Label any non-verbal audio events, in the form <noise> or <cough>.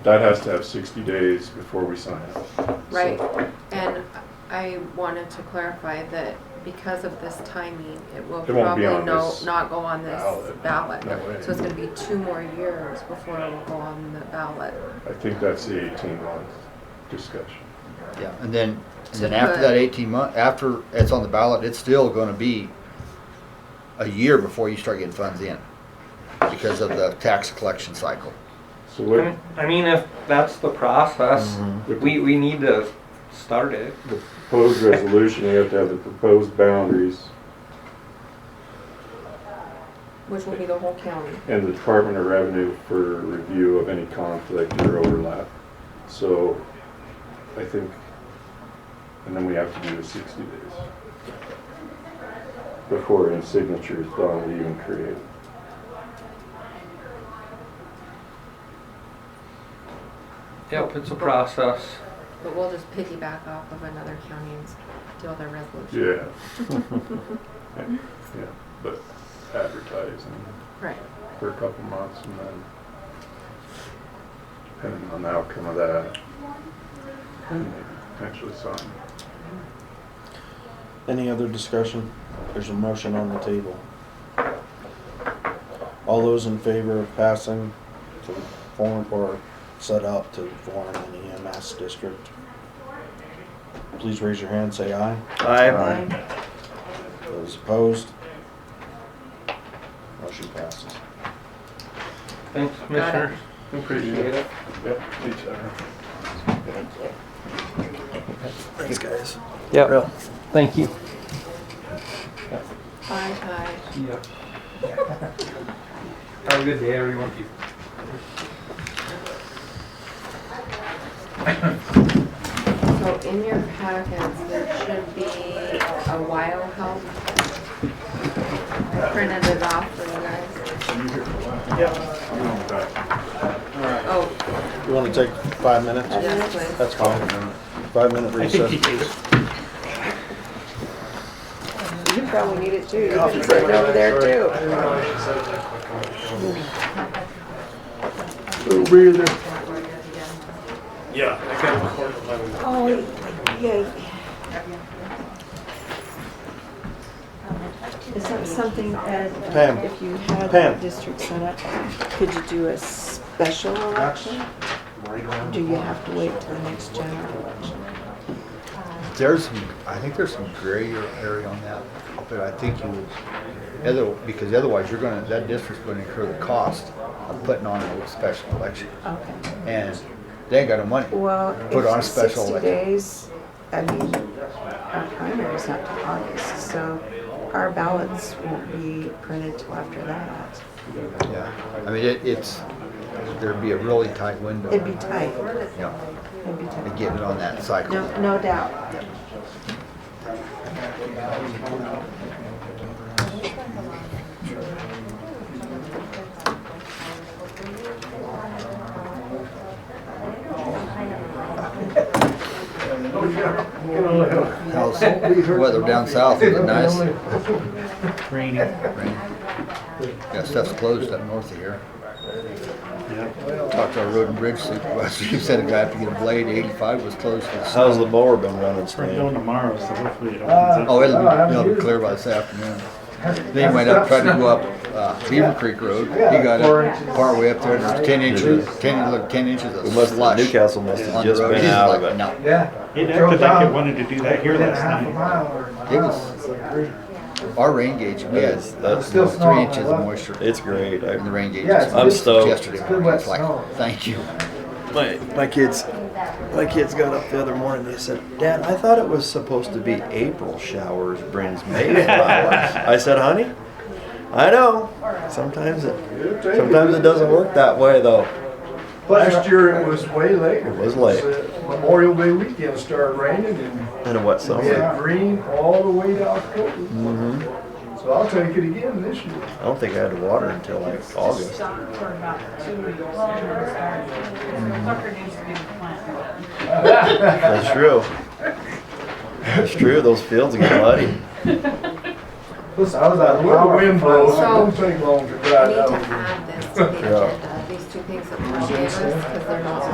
That has to have 60 days before we sign it. So- Right, and I wanted to clarify that because of this timing, it will It won't probably be on no, this not go on this ballot. ballot. No way. So it's gonna be two more years before it will go on the ballot. I think that's the 18-month discussion. Yeah, and then, So and then after put- that eighteen month, after it's on the ballot, it's still gonna be a year before you start getting funds in because of the tax collection cycle. So I what, mean- I mean, if that's the process, Mhm. we, we need to start it. the proposed resolution, you have to have the proposed boundaries Which will be the whole county. and the Department of Revenue for review of any conflict or overlap. So I think, and then we have to do the 60 days before any signature is done, we even create. Yep, it's a process. But we'll just piggyback off of another county and deal their resolution. Yeah. <laughs> Yeah, but advertising. Right. for a couple months and then depending on the outcome of that, then maybe potentially sign. Any other discussion? There's a motion on the table. All those in favor of passing to form or set up to form an EMS district, please raise your hand, say aye. Aye. Those opposed? Motion passes. Thanks, Commissioner. Appreciate it. Yep, each other. Thanks, guys. Yep, thank you. Aye, aye. Yep. Have a good day, everyone. So in your packets, there should be a while help. I printed it off for you guys. Oh, You wanna take five minutes? yes, please. That's fine. Five minute <laughs> recess. You probably need it too. You've been sitting over there too. Oh, yeah. Is that something that uh, Pam. if you had Pam. the district senate, could you do a special election? Do you have to wait till the next general election? There's some, I think there's some gray area on that, but I think you would, other, because otherwise you're gonna, that district's gonna incur the cost of putting on a special election. Okay. And they ain't got no money. Well, Put on a it's special sixty election. days, I mean, our primary's not till August, so our ballots won't be printed till after that. Yeah, I mean, it, it's, there'd be a really tight window. It'd be tight, You know, it'd be to tight. get it on that cycle. No, no doubt. How's weather down south? Is it nice? Rainy. Rainy? Yeah, stuff's closed up north of here. Talked to our road and bridge supervisor. He said a guy had to get a blade. Eighty-five was closed for the How's snow. the mower been running, We're Stan? going tomorrow, so hopefully it opens up. Oh, it'll, be- it'll be clear by this afternoon. Then he went up, tried to go up, uh, Beaver Creek Road. He got up, partway up there, and there's ten inches, ten, look, ten inches of It must- slush. Newcastle must have on the just road. been He's out like, of it. "No." It acted like it wanted to do that here last night. It was, our rain gauge, we had That's- three inches of moisture It's great. in the I- rain gauge. Yeah, it's I'm was stoked. Yesterday morning, it's like, thank you. My my kids, my kids got up the other morning. They said, "Dad, I thought it was supposed to be April showers brings <laughs> May flowers." I said, "Honey, I know. Sometimes it sometimes it doesn't work that way though. Last year it was way later. It was late. Memorial Day weekend started raining and And what we had summer? Mm-hmm. green all the way to October. So I'll take it again this year. I don't think I had water until like August. That's true. That's true. Those fields get muddy. Listen, I was out of The wind blows, it won't So- take long to We dry need it out. to add this to the agenda, these two things that Paul gave us, because they're not